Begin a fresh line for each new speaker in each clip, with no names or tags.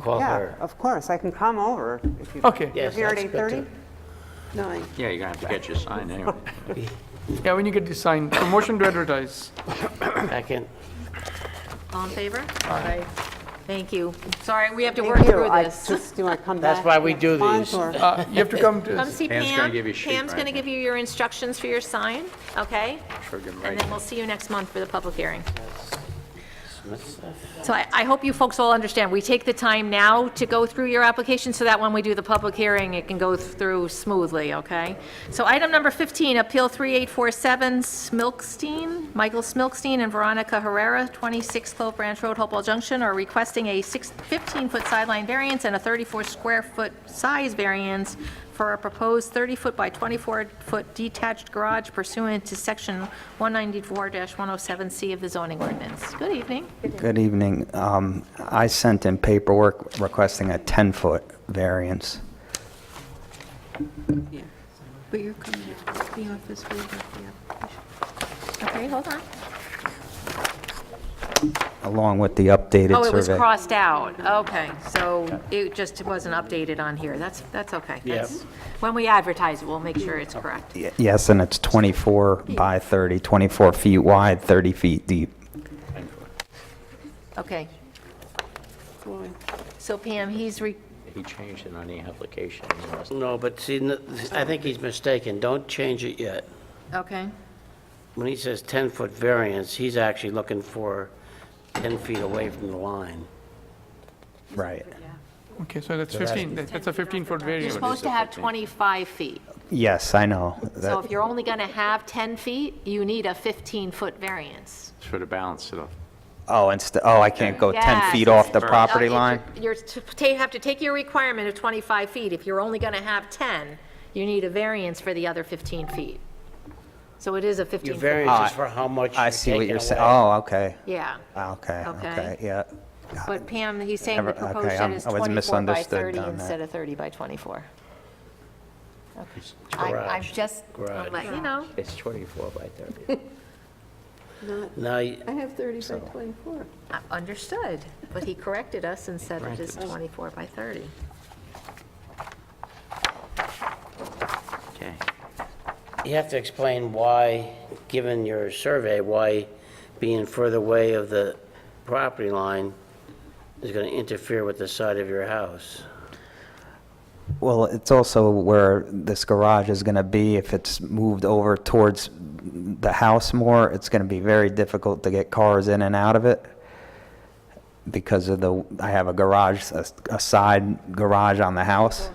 Call
Yeah,
her.
of course, I can come over if you.
Okay.
You're
Yes,
here at
that's good
8:30?
too.
Nine.
Yeah, you're gonna have to get your sign anyway.
Yeah, when you get the sign, so motion to advertise.
Second.
All in favor? Aye. Thank you. Sorry, we have to work
Thank you.
through
I
this.
just- Do I come back?
That's why we
next
do
month,
these.
or-
Uh, You have to come
Come
to,
see Pam.
Pam's gonna give you a sheet,
Pam's
right?
going to give you your instructions for your sign, okay?
Sure, give 'em
And then
right.
we'll see you next month for the public hearing.
Smith stuff.
So I, I hope you folks all understand, we take the time now to go through your application, so that when we do the public hearing, it can go through smoothly, okay? So item number 15, Appeal 3847, Smilkstein, Michael Smilkstein and Veronica Herrera, 26 Clove Branch Road, Hopewell Junction, are requesting a six- 15-foot sideline variance and a 34-square-foot size variance for a proposed 30-foot by 24-foot detached garage pursuant to Section 194-107C of the zoning ordinance. Good evening.
Good evening. Um, I sent in paperwork requesting a 10-foot variance.
Yeah, but you're coming out of the office without the application.
Okay, hold on.
along with the updated survey.
Oh, it was crossed out, okay, so it just wasn't updated on here, that's, that's okay. That's- When we advertise it, we'll make sure it's correct.
Y- Yes, and it's 24 by 30, 24 feet wide, 30 feet deep.
Okay,
Why?
so Pam, he's re,
He changed it on the application.
No, but see, n- I think he's mistaken. Don't change it yet.
okay,
When he says 10-foot variance, he's actually looking for 10 feet away from the line.
Right.
okay, so that's 15, that- that's a 15-foot
you're
variance.
supposed to have 25 feet,
Yes, I know.
so
That-
if you're only gonna have 10 feet, you need a 15-foot variance.
It's for the balance of the
Oh, and, oh, I can't go 10 feet
Yes.
off the property
Uh,
line?
You're, to ta- have to take your requirement of 25 feet, if you're only gonna have 10, you need a variance for the other 15 feet. So it is a 15-foot.
Your variance is for how much
Ah, I
you're
see what
taking
you're saying.
away.
Oh, okay.
Yeah.
Ah, Okay,
Okay.
okay, yeah.
But Pam, he's saying
Never-
the proposed
okay,
shed
I'm-
is
I was
24 by
misunderstood
30
on that.
instead of 30 by 24. Okay. I- I'm
Garage.
just,
Garage.
I'm letting you know,
It's 24 by 30.
Not,
Now, y-
I have 30 by 24.
I understood, but he corrected us and said it is 24 by 30.
Okay.
you have to explain why, given your survey, why being further away of the property line is going to interfere with the side of your house.
Well, it's also where this garage is going to be. If it's moved over towards the house more, it's going to be very difficult to get cars in and out of it because of the, I have a garage, a a side garage on the house.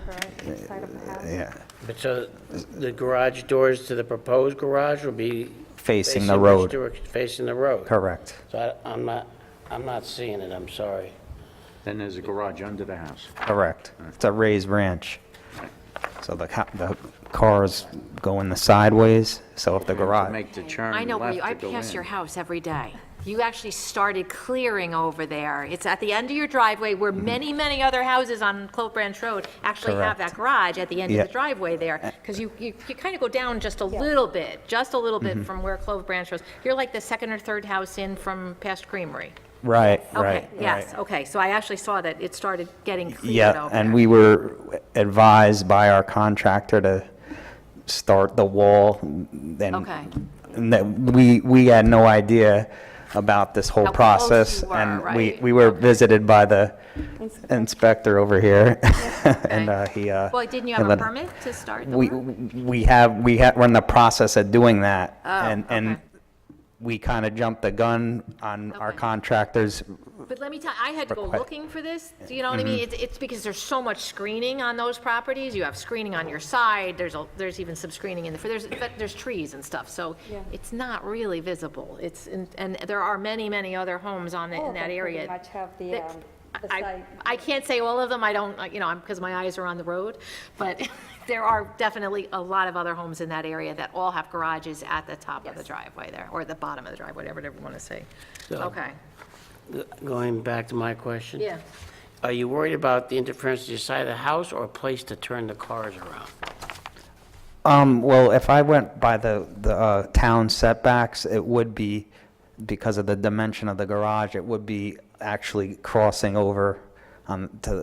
Yeah,
But so the garage doors to the proposed garage will be...
Facing the
which
road.
direc- Facing the road.
correct.
So I- I'm not, I'm not seeing it, I'm sorry.
Then there's a garage under the house.
Correct. It's a raised ranch. So the, ca- the cars go in the sideways, so if the
To
garage,
make the turn
I know, where
left
you- I
to go
pass
in.
your house every day. You actually started clearing over there. It's at the end of your driveway where many, many other houses on Clove Branch Road actually have that
Mm-hmm. Correct.
garage at the end of the
Yeah. Uh,
driveway there. Because you, you, you kind of go down just a little bit, just a little
Mm-hmm.
bit from where Clove Branch Road. You're like the second or third house in from past Creamery.
right, right.
Okay, yes, okay. So I actually saw that it started getting cleared
Yeah,
over.
and we were advised by our contractor to start the wall, then.
Okay.
And that, we, we had no idea about this whole
How close you
process.
were,
And we,
right?
we were visited by the inspector over here, and uh, he, uh.
Well, didn't you
he
have a
let-
permit to start the
We,
work?
we have, we have, we're in the process of doing that. and And
Oh, okay.
we kind of jumped the gun on our
Okay.
contractor's
But let me tell, I had to go
Requi-
looking for this, do you know what I mean? It's, it's because there's so much screening on those properties, you have screening on your side, there's, a there's even some screening in the, there's, but there's trees and stuff, so it's not really visible, it's, in- and there are many, many other homes on, the- in that area.
Oh, Much have the,
that-
um, the
I-
site.
I can't say all of them, I don't, uh, you know, because my eyes are on the road, but there are definitely a lot of other homes in that area that all have garages at the top of the driveway there, or the bottom of the driveway, whatever you want to say.
Oh.
Okay,
Going back to my question?
yeah.
Are you worried about the interference to your side of the house or a place to turn the cars around?
Um, well, if I went by the, the, uh, town setbacks, it would be, because of the dimension of the garage, it would be actually crossing over on, to,